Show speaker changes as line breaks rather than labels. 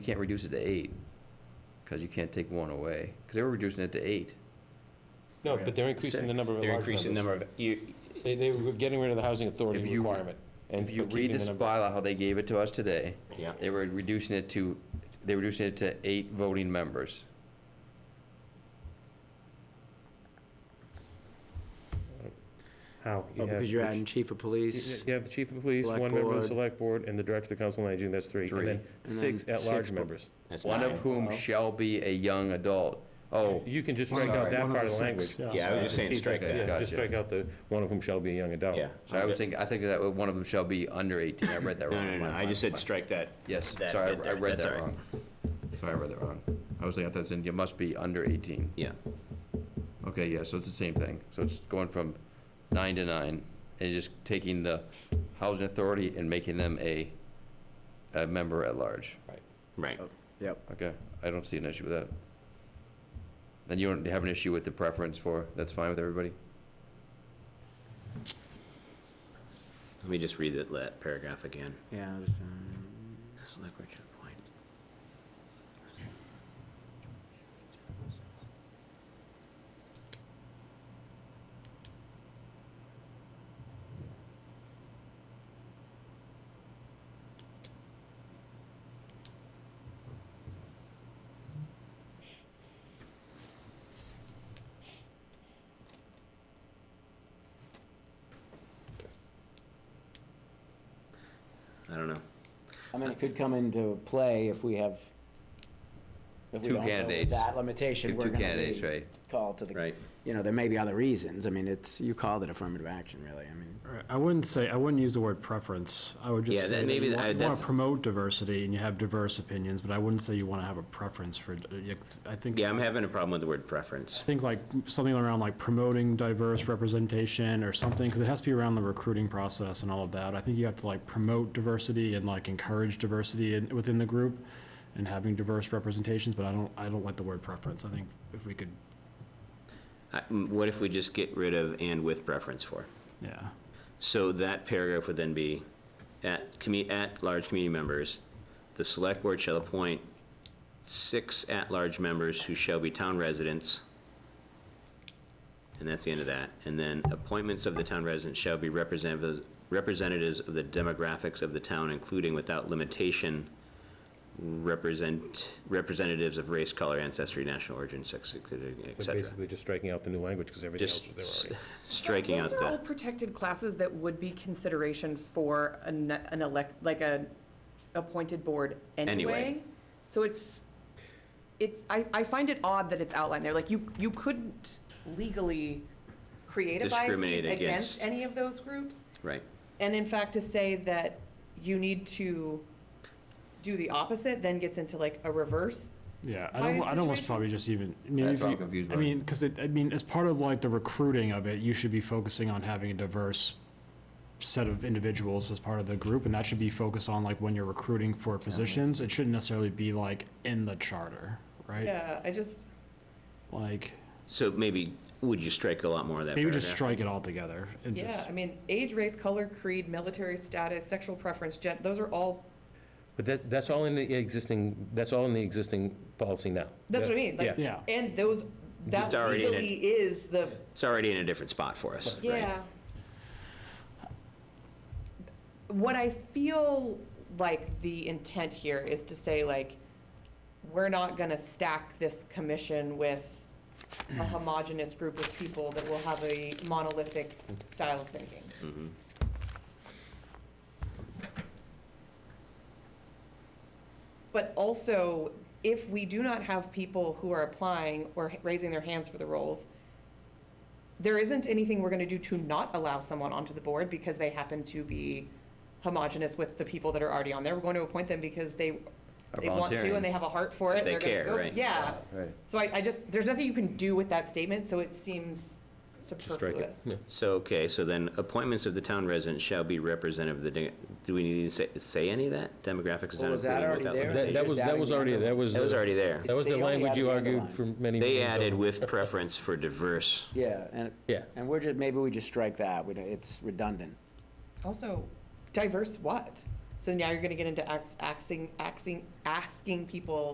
You can't reduce it to eight, because you can't take one away, because they were reducing it to eight.
No, but they're increasing the
Six.
number of
They're
large
increasing the
numbers.
number of, you,
They, they were getting rid of the housing
If
authority
you-
requirement. and
If you
but
read
keeping
this
the number-
bylaw, how they gave it to us today,
yeah,
they were reducing it to, they were reducing it to eight voting members.
How? You
Well,
have
because you're
the
adding
ch-
chief of police.
You have the chief of police,
select
one member of the
board.
select board, and the director of the council on aging, that's three.
Three.
And then
And
six
then six
at-large
bo-
members.
that's
One of
nine.
whom shall be a young adult. Oh,
You can just
One
strike
of
out
the-
that
one
oh
part of
the
the language.
six,
Yeah, I was just saying
Keep
strike
Okay.
that,
Yeah, just
Gotcha.
strike out the, one of whom shall be a young adult.
yeah.
so I was thinking, I think that one of them shall be under eighteen, I read that
No,
wrong.
no, no, I just said strike that.
Yes,
that
sorry,
bit
I- I
there.
read
That's all
that
right.
wrong. Sorry, I read that wrong. I was thinking, I thought it said you must be under eighteen.
Yeah,
Okay, yeah, so it's the same thing. So it's going from nine to nine, and just taking the housing authority and making them a, a member at large.
right.
Yep.
Okay, I don't see an issue with that. Then you don't have an issue with the preference for, that's fine with everybody?
Let me just read that, that paragraph again.
Yeah. it was, um,
Select Richard Point. I don't know.
I mean, it could come into play if we have. if we
Two
don't go with
candidates.
That limitation,
Two
we're gonna
candidates,
be
right.
called to the,
Right.
you know, there may be other reasons. I mean, it's, you called it affirmative action, really. I mean,
All right, I wouldn't say, I wouldn't use the word preference. I would
Yeah,
just
that-
say that
maybe
you
that- I-
want to
that's-
promote diversity and you have diverse opinions, but I wouldn't say you want to have a preference for, I think.
Yeah, I'm having a problem with the word preference.
I think like, something around like promoting diverse representation or something, because it has to be around the recruiting process and all of that. I think you have to like promote diversity and like encourage diversity in, within the group and having diverse representations, but I don't, I don't like the word preference. I think if we could,
I- m- What if we just get rid of "and with preference for"?
yeah.
So that paragraph would then be, at, commu- at large community members, the select board shall appoint six at-large members who shall be town residents. And that's the end of that. And then appointments of the town residents shall be representatives, representatives of the demographics of the town, including without limitation, represent, representatives of race, color, ancestry, national origin, sex, et
But
cetera.
basically just striking out the new language, because everything else
Just
was there already.
striking out
Those are all
that.
protected classes that would be consideration for an, an elect, like a appointed board anyway.
Anyway.
So it's, it's, I, I find it odd that it's outlined there, like you, you couldn't legally create a
Discriminate
bias
against.
against any of those groups.
Right.
And in fact, to say that you need to do the opposite then gets into like a reverse.
Yeah, I
Bias
don't, I don't almost
situation?
probably just even, I mean,
That's
if
what I'm
you-
confused
I
by.
mean, because it, I mean, as part of like the recruiting of it, you should be focusing on having a diverse set of individuals as part of the group, and that should be focused on like when you're recruiting for positions. It shouldn't necessarily be like in the charter, right?
Yeah, I just,
Like,
So maybe, would you strike a lot more of that
maybe
paragraph?
just strike it all together and
yeah,
just,
I mean, age, race, color, creed, military status, sexual preference, gen, those are all
But that, that's all in the existing, that's all in the existing policy now.
That's what I mean, like,
yeah.
and those, that
It's already in it.
legally is the,
It's already in a different spot for us, right?
yeah. What I feel like the intent here is to say like, we're not gonna stack this commission with a homogenous group of people that will have a monolithic style of thinking. But also, if we do not have people who are applying or raising their hands for the roles, there isn't anything we're gonna do to not allow someone onto the board because they happen to be homogenous with the people that are already on there. We're going to appoint them because they,
Are
they want to
volunteering.
and they have a heart for it.
They
They're gonna
care,
go-
right.
Yeah.
Right.
So I, I just, there's nothing you can do with that statement, so it seems superfluous.
So, okay, so then appointments of the town residents shall be representative of the, de- do we need to say, say any of that? Demographics is
Well,
not
was that
included
already
without
there?
That,
limitation.
that was, that was already, that was.
That was already there.
That was the
They only
language you
added the
argued for
underline.
many.
They
meetings
added
over.
with preference for diverse.
yeah, and,
Yeah.
and we're just, maybe we just strike that. We don't- It's redundant.
Also, diverse what? So now you're gonna get into ax- axing, axing, asking people